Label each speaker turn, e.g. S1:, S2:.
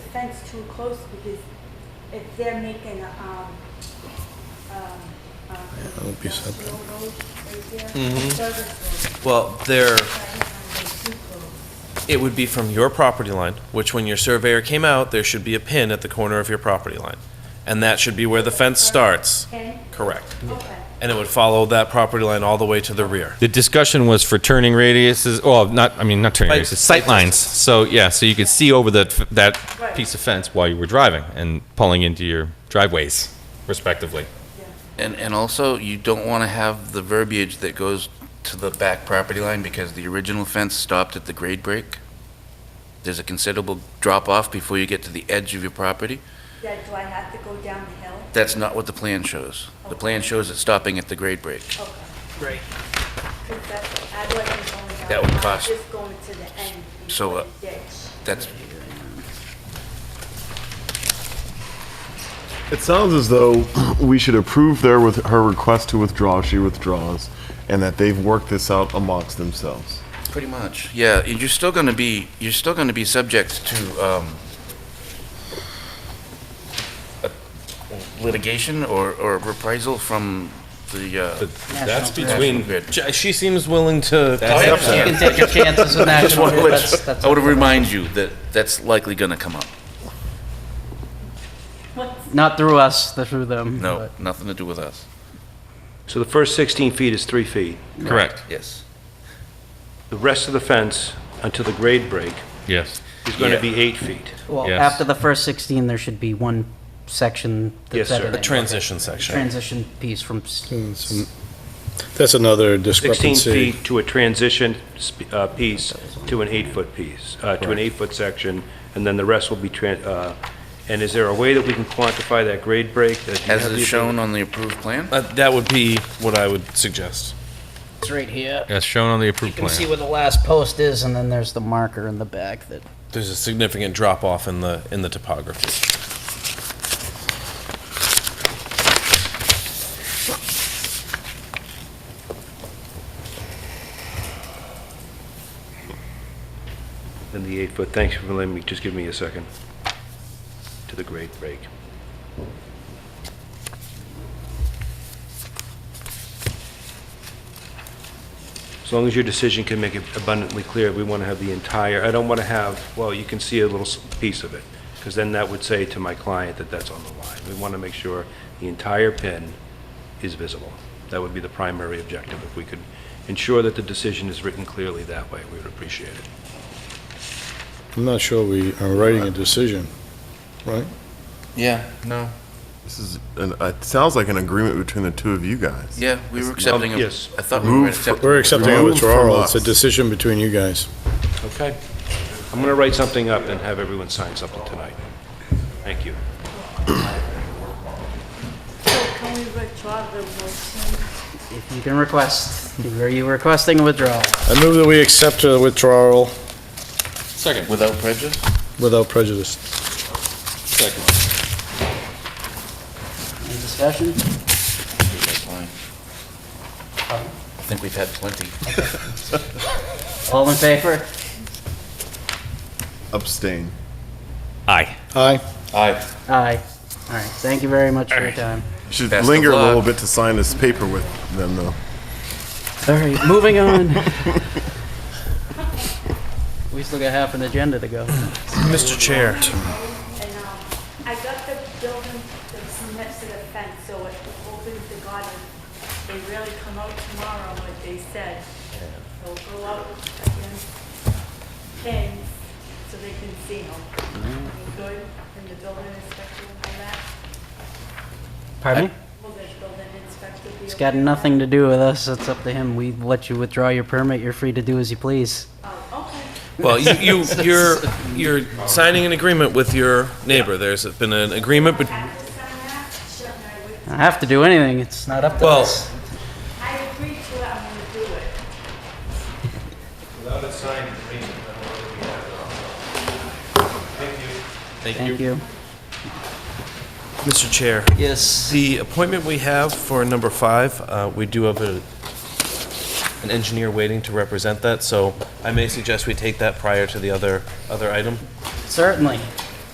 S1: fence too close because if they're making a, um, um, um.
S2: that would be something.
S1: industrial road right there,
S3: Mm-hmm.
S4: Mhm.
S1: service road,
S4: Well, there,
S1: right, and they're too close.
S4: it would be from your property line, which when your surveyor came out, there should be a pin at the corner of your property line. And that should be where the fence starts.
S1: Okay?
S4: Correct.
S1: Okay.
S4: And it would follow that property line all the way to the rear.
S5: The discussion was for turning radiuses, well, not, I mean, not turning
S4: Like-
S5: radiuses, sight lines. So, yeah, so you could see over that, f- that
S1: Right.
S5: piece of fence while you were driving and pulling into your driveways respectively.
S3: And, and also, you don't want to have the verbiage that goes to the back property line because the original fence stopped at the grade break. There's a considerable drop-off before you get to the edge of your property.
S1: Yeah, do I have to go down the hill?
S3: That's not what the plan shows. The plan shows it stopping at the grade break.
S1: Okay. Great. Cause that's, I wasn't going down.
S3: That would
S1: I was
S3: cost-
S1: Just going to the end.
S3: So,
S1: before
S3: uh,
S1: the ditch.
S3: That's,
S6: It sounds as though we should approve their with her request to withdraw. if She withdraws, and that they've worked this out amongst themselves.
S3: pretty much, yeah, and you're still going to be, you're still going to be subject to um, a- litigation or, or reprisal from the, uh,
S5: That's
S3: between- National
S4: She seems willing to.
S3: I
S5: That's
S3: understand.
S5: up
S7: You can take your chances with
S3: I just
S7: National
S3: want to
S7: Grid,
S3: let, you-
S7: that's, that's.
S3: I want to
S7: up to them.
S3: remind you that that's likely going to come up.
S7: Not through us, through them.
S3: No,
S7: but-
S3: nothing to do with us.
S8: So the first 16 feet is three feet.
S5: to. Correct,
S3: Yes.
S8: The rest of the fence until the grade break
S5: yes.
S8: is going
S3: Yeah.
S8: to be eight feet.
S7: Well,
S5: Yes.
S7: after the first 16, there should be one section that's
S8: Yes, sir.
S7: edited.
S4: A transition section.
S7: Transition piece from s-
S2: Some- That's another
S8: 16
S2: discrepancy.
S8: feet to a transition sp- uh, piece to an eight-foot piece, uh, to an eight-foot section, and then the rest will be, tran- uh, and is there a way that we can quantify that grade break? that you
S3: As
S8: have
S3: is
S8: the-
S3: shown on the approved plan?
S4: Uh, That would be what I would suggest.
S7: It's right here.
S5: As shown on the
S7: You
S5: approved
S7: can see
S5: plan.
S7: where the last post is, and then there's the marker in the back that,
S4: There's a significant drop off in the, in the topography.
S8: And the eight-foot, thanks for letting me, just give me a second, to the grade break. As long as your decision can make it abundantly clear, we want to have the entire, I don't want to have, well, you can see a little s- piece of it, because then that would say to my client that that's on the line. We want to make sure the entire pin is visible. That would be the primary objective. If we could ensure that the decision is written clearly that way, we would appreciate it.
S2: I'm not sure we are writing a decision, right?
S3: Yeah, no.
S6: This is an, it sounds like an agreement between the two of you guys.
S3: Yeah, we were accepting, a- I
S8: yes.
S3: thought we were
S6: Move for-
S3: accepting.
S2: We're accepting a
S6: Remove from
S2: withdrawal. It's a
S6: us.
S2: decision between you guys.
S8: Okay. I'm going to write something up and have everyone sign something tonight. Thank you.
S1: So can we withdraw the motion?
S7: if you can request, are you requesting a withdrawal?
S2: I move that we accept a withdrawal
S5: Second.
S3: Without prejudice?
S2: without prejudice.
S7: Any discussion?
S3: That's fine. I think we've had plenty.
S7: All in favor?
S6: Abstain.
S5: Aye.
S2: Aye.
S3: Aye.
S7: Aye. All right, thank you very much for your time.
S6: You should
S3: Best of
S6: linger a little
S3: luck.
S6: bit to sign this paper with them, though.
S7: All right, moving on. We still got half an agenda to go.
S4: Mr. Chair.
S1: And um, I got the building that's next to the fence, so it opens the garden. They really come out tomorrow, like they said. They'll go out against pins so they can see them.
S7: Mm-hmm.
S1: Good, and the building inspector will come back.
S7: Pardon me?
S1: Will the building inspector be?
S7: It's got
S1: okay?
S7: nothing to do with us, it's up to him. We let you withdraw your permit, you're free to do as you please.
S1: Oh, okay.
S4: Well, you, you, you're, you're signing an agreement with your neighbor. There's been an agreement,
S1: I
S4: but,
S1: have to sign that, shouldn't I?
S7: I
S1: With-
S7: don't have to do anything, it's not up to
S4: Well-
S7: us.
S1: I agree to it, I'm gonna do it.
S7: Thank you.
S4: Mr. Chair,
S7: Yes.
S4: the appointment we have for number five, uh, we do have a, an engineer waiting to represent that, so I may suggest we take that prior to the other, other item.
S7: Certainly.